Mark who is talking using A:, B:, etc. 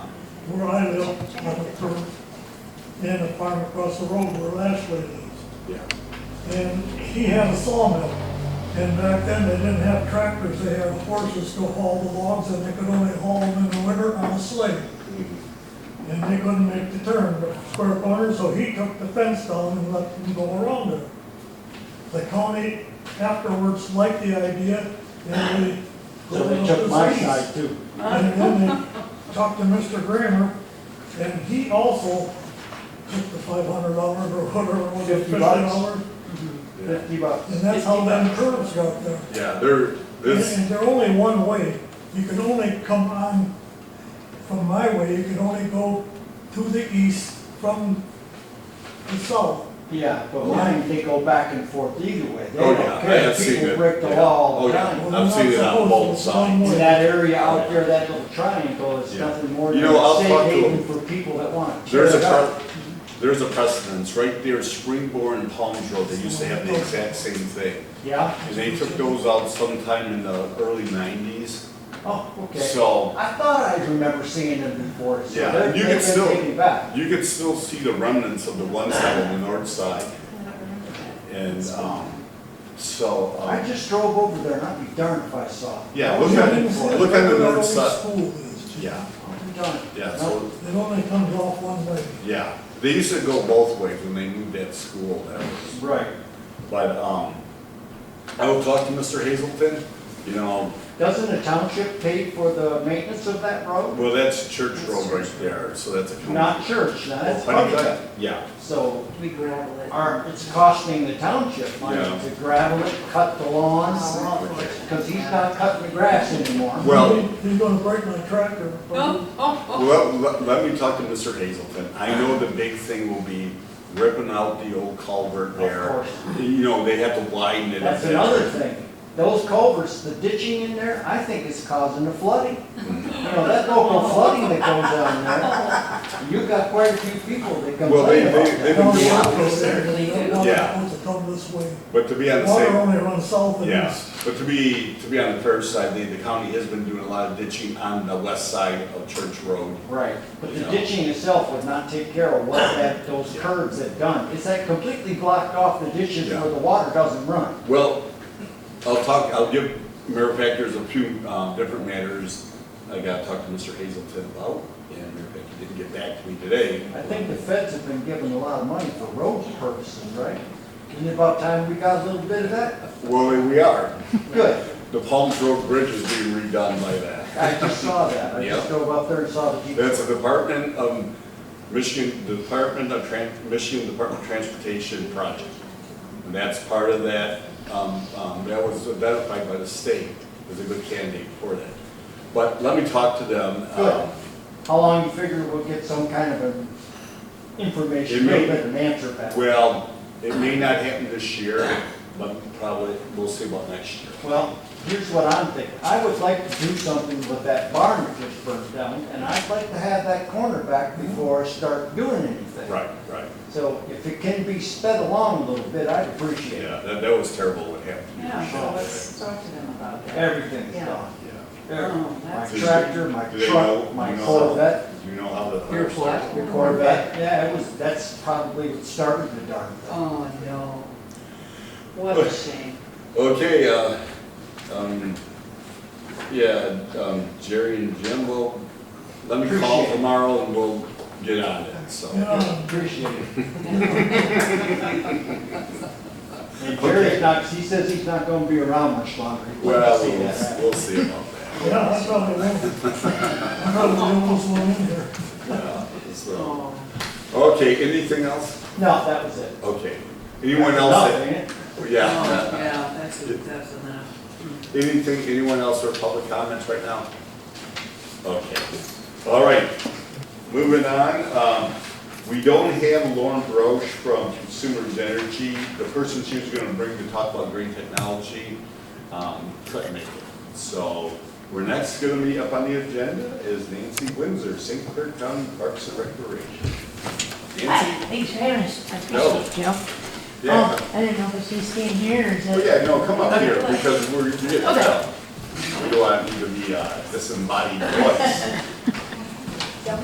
A: where I live, like a clerk, and a farm across the road where Ashley lives.
B: Yeah.
A: And he had a sawmill. And back then, they didn't have tractors, they had horses to haul the logs, and they could only haul them in the winter on a sleigh.
C: Mm-hmm.
A: And they couldn't make the turn, but square corner, so he took the fence down and let them go around it. The county afterwards liked the idea, and they.
C: So they took my side too.
A: And then they talked to Mr. Grammer, and he also took the five hundred dollars or whatever, it was it
C: Fifty
A: fifty
C: bucks.
A: dollars?
B: Yeah,
C: Fifty bucks.
A: And that's how them curves got there.
B: Yeah, there,
A: And
B: this,
A: and they're only one way. You can only come on from my way, you can only go to the east from the south.
C: Yeah, but mine, they go back and forth either way. They
B: Oh,
C: don't
B: yeah, I
C: care.
B: have seen
C: People
B: it.
C: break the
B: Yeah.
C: law all
B: Oh,
C: the
B: yeah.
C: time.
A: Well,
B: I've
A: they're not
B: seen it on
A: supposed
B: both
A: to. It's
B: sides.
A: one way.
C: In that area out there, that little triangle is
B: Yeah.
C: nothing more
B: You
C: than
B: know,
C: a
B: I'll
C: safe
B: talk to
C: haven
B: him.
C: for people that want to tear
B: there's a,
C: it up.
B: pre- there's a precedence, right there, Springborn and Palms Road, they used to have the exact same thing.
C: Yeah,
B: And they took those out sometime in the early nineties,
C: oh, okay.
B: so
C: I thought I remember seeing them before, so
B: Yeah,
C: they're,
B: you
C: they're
B: can still-
C: taking it back.
B: you could still see the remnants of the one side on the north side. And, um, so,
C: I
B: um,
C: just drove over there and I'd be darned if I saw. it.
B: Yeah,
C: I
B: look
C: was
B: at-
C: looking for it.
B: look at the north
A: Where
B: side.
A: School is.
B: yeah,
C: I'm darned.
B: yeah,
C: Nope.
B: so,
A: It only comes off one way.
B: yeah. They used to go both ways when they moved that school, that was.
C: Right.
B: But, um, I will talk to Mr. Hazelton, you know,
C: Doesn't the township pay for the maintenance of that road?
B: well, that's Church Road right there, so that's a. county-
C: Not church, now that's
B: Well, honey,
C: public.
B: Yeah,
C: So,
D: We gravel it.
C: our, it's costing the township money
B: Yeah.
C: to gravel it, cut the lawns,
D: Oh,
C: because he's not cutting the grass anymore.
B: well,
A: He's gonna break my tractor.
D: Oh, oh, oh.
B: well, let, let me talk to Mr. Hazelton. I know the big thing will be ripping out the old culvert
C: Of
B: there.
C: course.
B: You know, they have to widen it.
C: That's another thing. Those culverts, the ditching in there, I think is causing the flooding.
B: Mm.
C: You know, that local flooding that goes on there, you've got quite a few people that
B: Well, they,
C: complain about
B: they, they've
C: that.
B: been
A: Down the
B: doing
A: road,
B: this there.
A: they don't want
B: Yeah.
A: it to come this way.
B: But to be on the
A: Water
B: same,
A: only runs south and
B: yeah,
A: east.
B: but to be, to be on the fair side, the, the county has been doing a lot of ditching on the west side of Church Road.
C: Right, but the
B: Yeah.
C: ditching itself would not take care of what that, those curves have done. It's that completely blocked off the ditches
B: Yeah.
C: where the water doesn't run.
B: Well, I'll talk, I'll give Mayor Beck, there's a few um, different matters I gotta talk to Mr. Hazelton about, and Mayor Beck didn't get back to me today.
C: I think the feds have been given a lot of money for road purposes, right? Isn't it about time we got a little bit of that?
B: Well, we are.
C: Good,
B: The Palms Road Bridge is being redone by that.
C: I just saw that. I just
B: Yeah.
C: drove up there and saw the
B: That's
C: people.
B: a Department of Michigan, Department of Tran, Michigan Department of Transportation project. And that's part of that, um, um, that was identified by the state as a good candidate for that. But let me talk to them. um,
C: Good. How long you figure we'll get some kind of an information,
B: It may-
C: a bit of an answer back?
B: Well, it may not happen this year, but probably, we'll see about next year.
C: Well, here's what I'm thinking. I would like to do something with that barn that just burned down, and I'd like to have that corner back before I start doing anything.
B: Right, right.
C: So if it can be sped along a little bit, I'd appreciate it.
B: Yeah, that, that was terrible what happened.
D: Yeah, well, let's talk to them about that.
C: Everything's
D: Yeah.
C: gone.
B: Yeah.
D: Oh,
C: Everything. My
D: that's-
C: tractor, my
B: Do they know-
C: truck, my
B: you know how-
C: Corvette,
B: Do you know how the.
D: Your what?
C: the Corvette. Yeah, it was, that's probably what started the darn thing.
D: Oh, no. What a shame.
B: Okay, uh, um, yeah, um, Jerry and Jim will, let me call
C: Appreciate it.
B: tomorrow and we'll get on it, so.
A: Yeah.
C: Appreciate it. And Jerry's not, he says he's not gonna be around much longer. He wants to
B: Well,
C: see that
B: we'll,
C: happen.
B: we'll see about that.
A: Yeah, that's probably one. I'm probably the oldest one in here.
B: Yeah, so.
D: Oh,
B: Okay, anything else?
C: No, that was it.
B: Okay. Anyone else?
C: No,
B: that-
C: ain't it?
B: Yeah.
D: oh, yeah, that's, that's enough.
B: Anything, anyone else for public comments right now? Okay, all right, moving on, um, we don't have Lauren Broche from Consumers Energy, the person she was gonna bring to talk about green technology, um, couldn't make it. So, we're next gonna be up on the agenda is Nancy Windsor, St. Clair County Parks and Recreation. Nancy?
E: Thanks for having us, I
B: No.
E: appreciate you.
B: Yeah,
E: Oh, I didn't know if she's staying here or is
B: oh
E: it?
B: yeah, no, come up here, because we're, you get,
E: Okay.
B: we don't want you to be a uh, disembodied voice.